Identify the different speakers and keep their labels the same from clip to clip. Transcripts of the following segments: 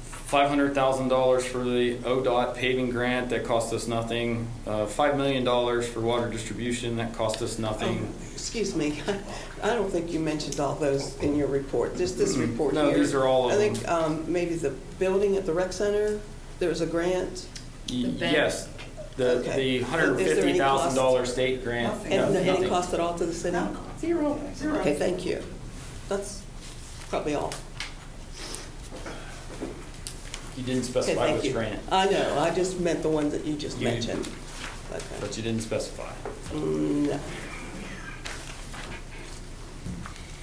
Speaker 1: five hundred thousand dollars for the ODOT paving grant, that cost us nothing. Uh, five million dollars for water distribution, that cost us
Speaker 2: Oh,
Speaker 1: nothing.
Speaker 2: Um, Excuse me, I don't think you mentioned all those in your report, just this
Speaker 1: Mm-mm.
Speaker 2: report here.
Speaker 1: No, these are all of
Speaker 2: I think um, maybe the building at the rec center, there was a grant,
Speaker 1: Y-
Speaker 3: ban-
Speaker 1: Yes, the,
Speaker 2: Okay.
Speaker 1: the hundred
Speaker 2: Is there
Speaker 1: fifty
Speaker 2: any cost?
Speaker 1: thousand dollar state grant.
Speaker 4: Nothing.
Speaker 1: no,
Speaker 2: and any
Speaker 1: nothing.
Speaker 2: cost at all to the city?
Speaker 4: No, zero, zero.
Speaker 2: Okay, thank you. That's probably all.
Speaker 1: You didn't
Speaker 2: Okay,
Speaker 1: specify
Speaker 2: thank
Speaker 1: which
Speaker 2: you.
Speaker 1: grant,
Speaker 2: I know, I just meant the ones that you just
Speaker 1: You-
Speaker 2: mentioned. Okay.
Speaker 1: but you didn't specify.
Speaker 2: Mm, no.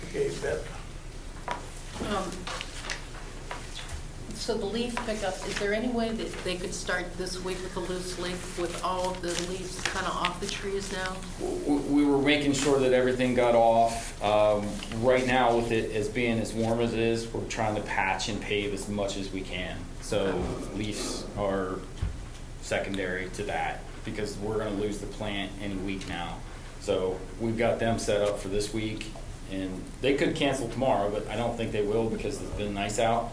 Speaker 5: Okay, Beth,
Speaker 3: Um, So the leaf pickup, is there any way that they could start this week with a loose leaf with all of the leaves kind of off the trees now?
Speaker 1: W- We were making sure that everything got off. Um, Right now, with it as being as warm as it is, we're trying to patch and pave as much as we can. So leaves are secondary to that because we're going to lose the plant any week now. So we've got them set up for this week, and they could cancel tomorrow, but I don't think they will because it's been nice out.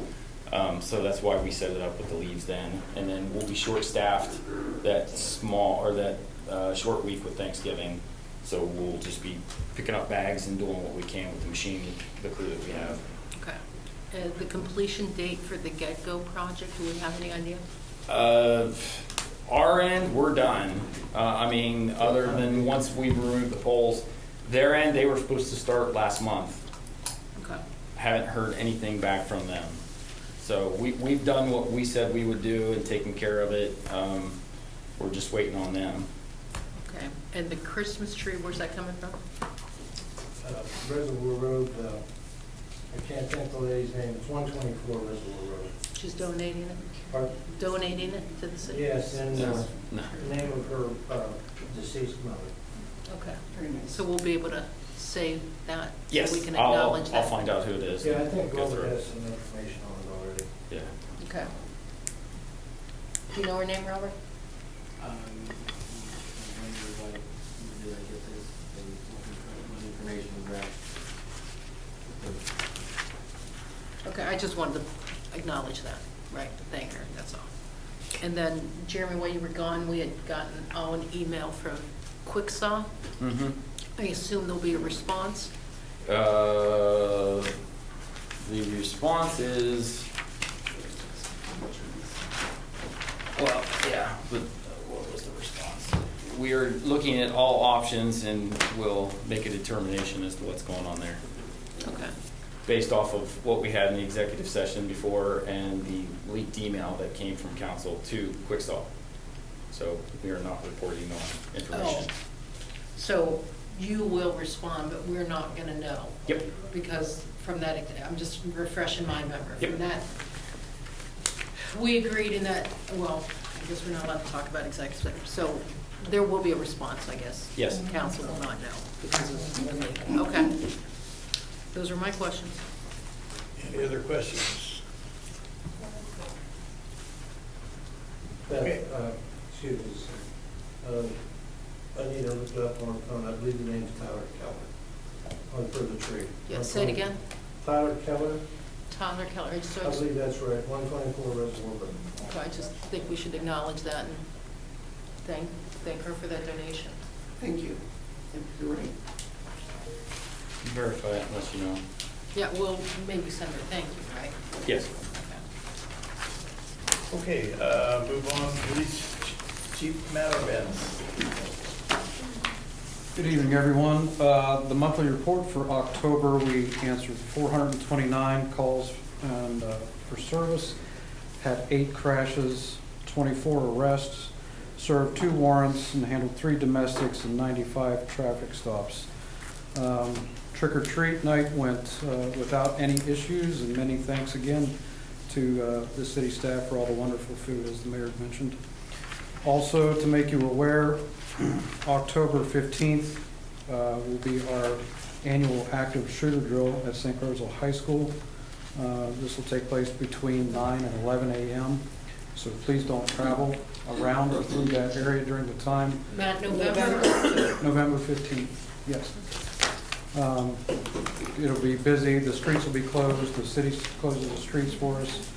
Speaker 1: Um, So that's why we set it up with the leaves then. And then we'll be short-staffed that small, or that uh, short week with Thanksgiving. So we'll just be picking up bags and doing what we can with the machine, the crew that we have.
Speaker 3: Okay. Uh, The completion date for the get-go project, do we have any idea?
Speaker 1: Uh, our end, we're done. Uh, I mean, other than once we remove the poles, their end, they were supposed to start last month.
Speaker 3: Okay.
Speaker 1: Haven't heard anything back from them. So we, we've done what we said we would do and taken care of it. Um, we're just waiting on them.
Speaker 3: Okay. And the Christmas tree, where's that coming from?
Speaker 6: uh, Reservoir Road, uh, I can't think of the lady's name, it's 124 Reservoir Road.
Speaker 3: She's donating it?
Speaker 6: Pardon?
Speaker 3: Donating it to the city?
Speaker 6: Yes, and uh,
Speaker 1: No.
Speaker 6: the name of her uh, deceased mother.
Speaker 3: Okay.
Speaker 4: Very nice.
Speaker 3: So we'll be able to save that? so we
Speaker 1: Yes,
Speaker 3: can
Speaker 1: I'll,
Speaker 3: acknowledge
Speaker 1: I'll
Speaker 3: that?
Speaker 1: find out who it is.
Speaker 6: Yeah, I think
Speaker 1: Go
Speaker 6: Robert
Speaker 1: through
Speaker 6: has
Speaker 1: it.
Speaker 6: some information on it already.
Speaker 1: Yeah.
Speaker 3: Okay. Do you know her name, Robert?
Speaker 7: Um, I wonder why, did I get this, and what information was that?
Speaker 3: Okay, I just wanted to acknowledge that, right, thank her, that's all. And then Jeremy, while you were gone, we had gotten all an email from Quicksaw.
Speaker 1: Mm-hmm.
Speaker 3: I assume there'll be a response.
Speaker 1: Uh, the response is, well, yeah, but what was the response? We are looking at all options and we'll make a determination as to what's going on there,
Speaker 3: Okay,
Speaker 1: based off of what we had in the executive session before and the leaked email that came from council to Quickstall. So we are not reporting
Speaker 3: Oh.
Speaker 1: on information.
Speaker 3: so you will respond, but we're not going to know.
Speaker 1: Yep.
Speaker 3: Because from that, I'm just refreshing my memory.
Speaker 1: Yep.
Speaker 3: From that, we agreed in that, well, I guess we're not allowed to talk about executive, so there will be a response, I guess.
Speaker 1: Yes.
Speaker 3: Council will not know because of, the- okay. Those are my questions.
Speaker 5: any other questions?
Speaker 6: Beth,
Speaker 5: Okay.
Speaker 6: uh, excuse me, sir. Um, I need to look it up on, the phone. I believe the name's Tyler Keller, on for the tree. Uh,
Speaker 3: Yeah, say it again.
Speaker 6: Tyler Keller,
Speaker 3: Tyler Keller, I just-
Speaker 6: I believe that's right, 124 Reservoir Road.
Speaker 3: so I just think we should acknowledge that and thank, thank her for that donation.
Speaker 4: Thank you. You're right.
Speaker 1: Verify it unless you know.
Speaker 3: Yeah, well, maybe send her thank you, right?
Speaker 1: Yes.
Speaker 5: Okay, uh, move on, police ch- chief Mattavins.
Speaker 8: Good evening, everyone. Uh, The monthly report for October, we answered 429 calls and uh, for service, had eight crashes, 24 arrests, served two warrants, and handled three domestics and 95 traffic stops. Um, Trick or treat night went uh, without any issues, and many thanks again to uh, the city staff for all the wonderful food, as the mayor had mentioned. Also, to make you aware, October 15th uh, will be our annual active shooter drill at St. Rosal High School. Uh, This will take place between 9 and 11 a.m., so please don't travel around or through that area during the time.
Speaker 3: Matt, November,
Speaker 8: November 15th, yes. Um, It'll be busy, the streets will be closed, the city closes the streets for us.